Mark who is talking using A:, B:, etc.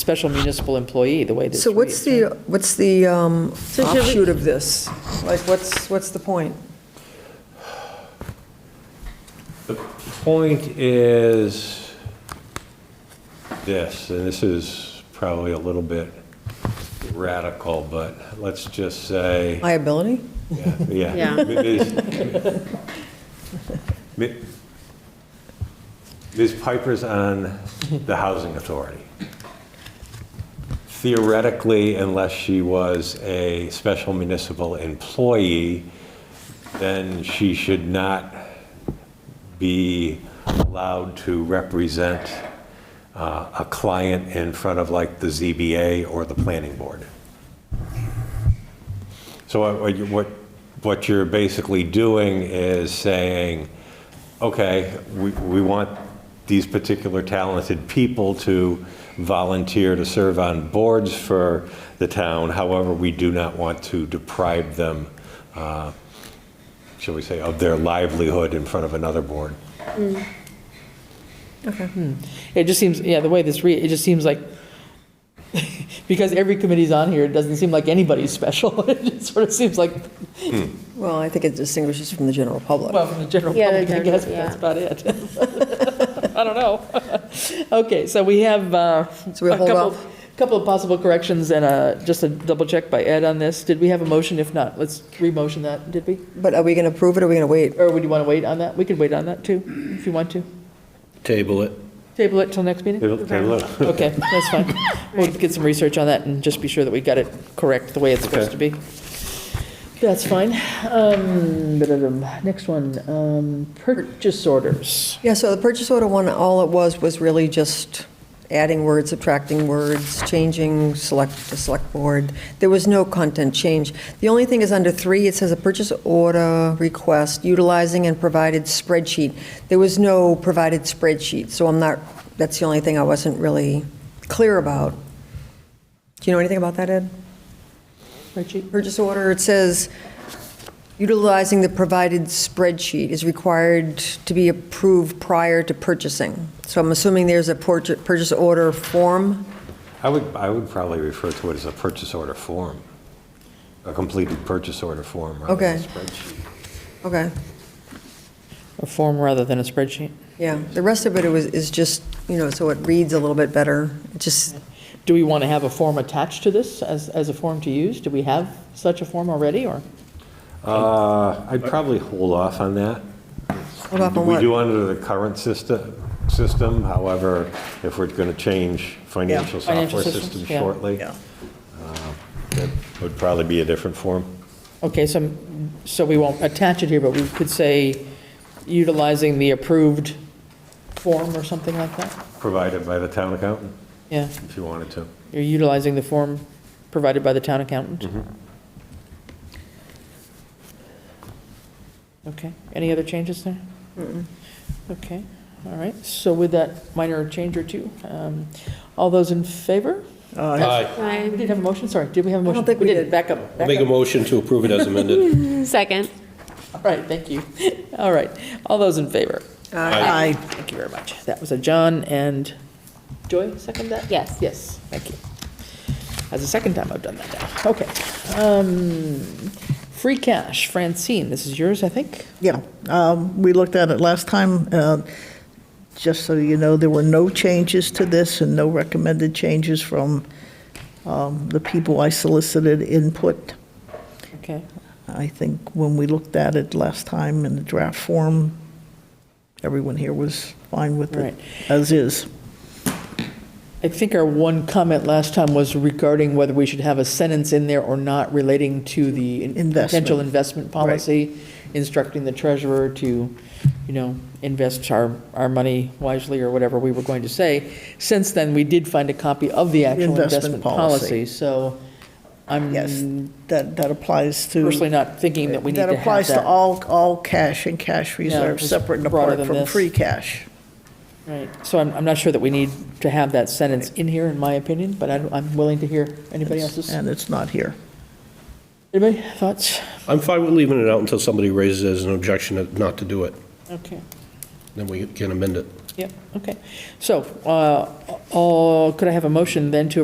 A: special municipal employee, the way this reads.
B: So what's the, what's the um,
C: So should we-
B: offshoot of this? Like, what's, what's the point?
D: The point is this, and this is probably a little bit radical, but let's just say,
B: Liability?
D: yeah, yeah.
C: Yeah.
D: Ms. Mi- Ms. Piper's on the Housing Authority. Theoretically, unless she was a special municipal employee, then she should not be allowed to represent uh, a client in front of like the ZBA or the planning board. So what- what, you- what, what you're basically doing is saying, okay, we, we want these particular talented people to volunteer to serve on boards for the town, however, we do not want to deprive them, uh, shall we say, of their livelihood in front of another board.
A: It just seems, yeah, the way this read, it just seems like, because every committee's on here, it doesn't seem like anybody's special. It just sort of seems like,
B: Well, I think it distinguishes from the general public.
A: well, from the general
C: Yeah,
A: public, I
C: they're-
A: guess, but
C: yeah.
A: that's about it. I don't know. Okay, so we have uh,
B: So we
A: a
B: hold
A: couple,
B: off?
A: couple of possible corrections and uh, just a double check by Ed on this. Did we have a motion? If not, let's re-motion that, did we?
B: But are we going to approve it or are we going to wait?
A: Or would you want to wait on that? We could wait on that too, if you want to.
E: Table it.
A: Table it till next meeting?
D: Table- table it.
A: Okay, that's fine. We'll get some research on that and just be sure that we got it correct the way it's supposed to be. That's fine. Um, ba-da-dum. Next one, um, purchase orders.
B: Yeah, so the purchase order one, all it was, was really just adding words, subtracting words, changing select to select board. There was no content change. The only thing is under three, it says a purchase order request utilizing and provided spreadsheet. There was no provided spreadsheet, so I'm not, that's the only thing I wasn't really clear about. Do you know anything about that, Ed?
A: Spreadsheet?
B: Purchase order, it says utilizing the provided spreadsheet is required to be approved prior to purchasing. So I'm assuming there's a purchase purchase order form.
D: I would, I would probably refer to it as a purchase order form, a completed purchase order form rather than a
B: Okay.
D: spreadsheet.
B: Okay,
A: A form rather than a spreadsheet.
B: yeah. The rest of it was, is just, you know, so it reads a little bit better. It just,
A: Do we want to have a form attached to this as, as a form to use? Do we have such a form already, or?
D: Uh, I'd probably hold off on that.
B: hold up on
D: We do
B: what?
D: under the current system, system, however, if we're going to change financial
A: Financial
D: software
A: systems,
D: system
A: yeah.
D: shortly,
B: Yeah.
D: that would probably be a different form.
A: Okay, so, so we won't attach it here, but we could say utilizing the approved form or something like that?
D: Provided by the town accountant,
A: Yeah,
D: if you wanted to.
A: you're utilizing the form provided by the town accountant?
E: Mm-hmm.
A: Okay, any other changes there? Okay, all right, so with that minor change or two, um, all those in favor?
E: Aye.
A: We didn't have a motion, sorry, did we have a
B: don't
A: motion?
B: think we
A: didn't.
B: did.
A: Back up,
E: I'll
A: back
E: make a
A: up.
E: motion to approve it as amended.
C: Second.
A: All right, thank you. All right, all those in favor?
E: Aye.
A: Thank you very much. That was a John and Joy, second that?
C: Yes.
A: Yes, thank you. That's the second time I've done that now. Okay. Um, Free cash, Francine, this is yours, I think?
F: Yeah, um, we looked at it last time. uh, Just so you know, there were no changes to this and no recommended changes from um, the people I solicited input.
A: Okay,
F: I think when we looked at it last time in the draft form, everyone here was fine with it,
A: Right.
F: as is.
A: I think our one comment last time was regarding whether we should have a sentence in there or not relating to the in-
F: Investment.
A: potential investment policy, instructing the treasurer to, you know, invest our, our money wisely or whatever we were going to say. Since then, we did find a copy of the actual
F: Investment
A: investment policy,
F: policy.
A: so
F: Yes,
A: I'm
F: Mm, that, that applies to.
A: personally not thinking that we need to have that.
F: applies to all, all cash and cash reserves,
A: just
F: separate and
A: broader
F: apart
A: than
F: from
A: this.
F: free cash.
A: Right, so I'm, I'm not sure that we need to have that sentence in here, in my opinion, but I'm, I'm willing to hear anybody else's.
F: And it's not here.
A: Anybody, thoughts?
E: I'm fine with leaving it out until somebody raises it as an objection not to do it.
A: Okay.
E: Then we can amend it.
A: Yep, okay. So, uh, all- could I have a motion then to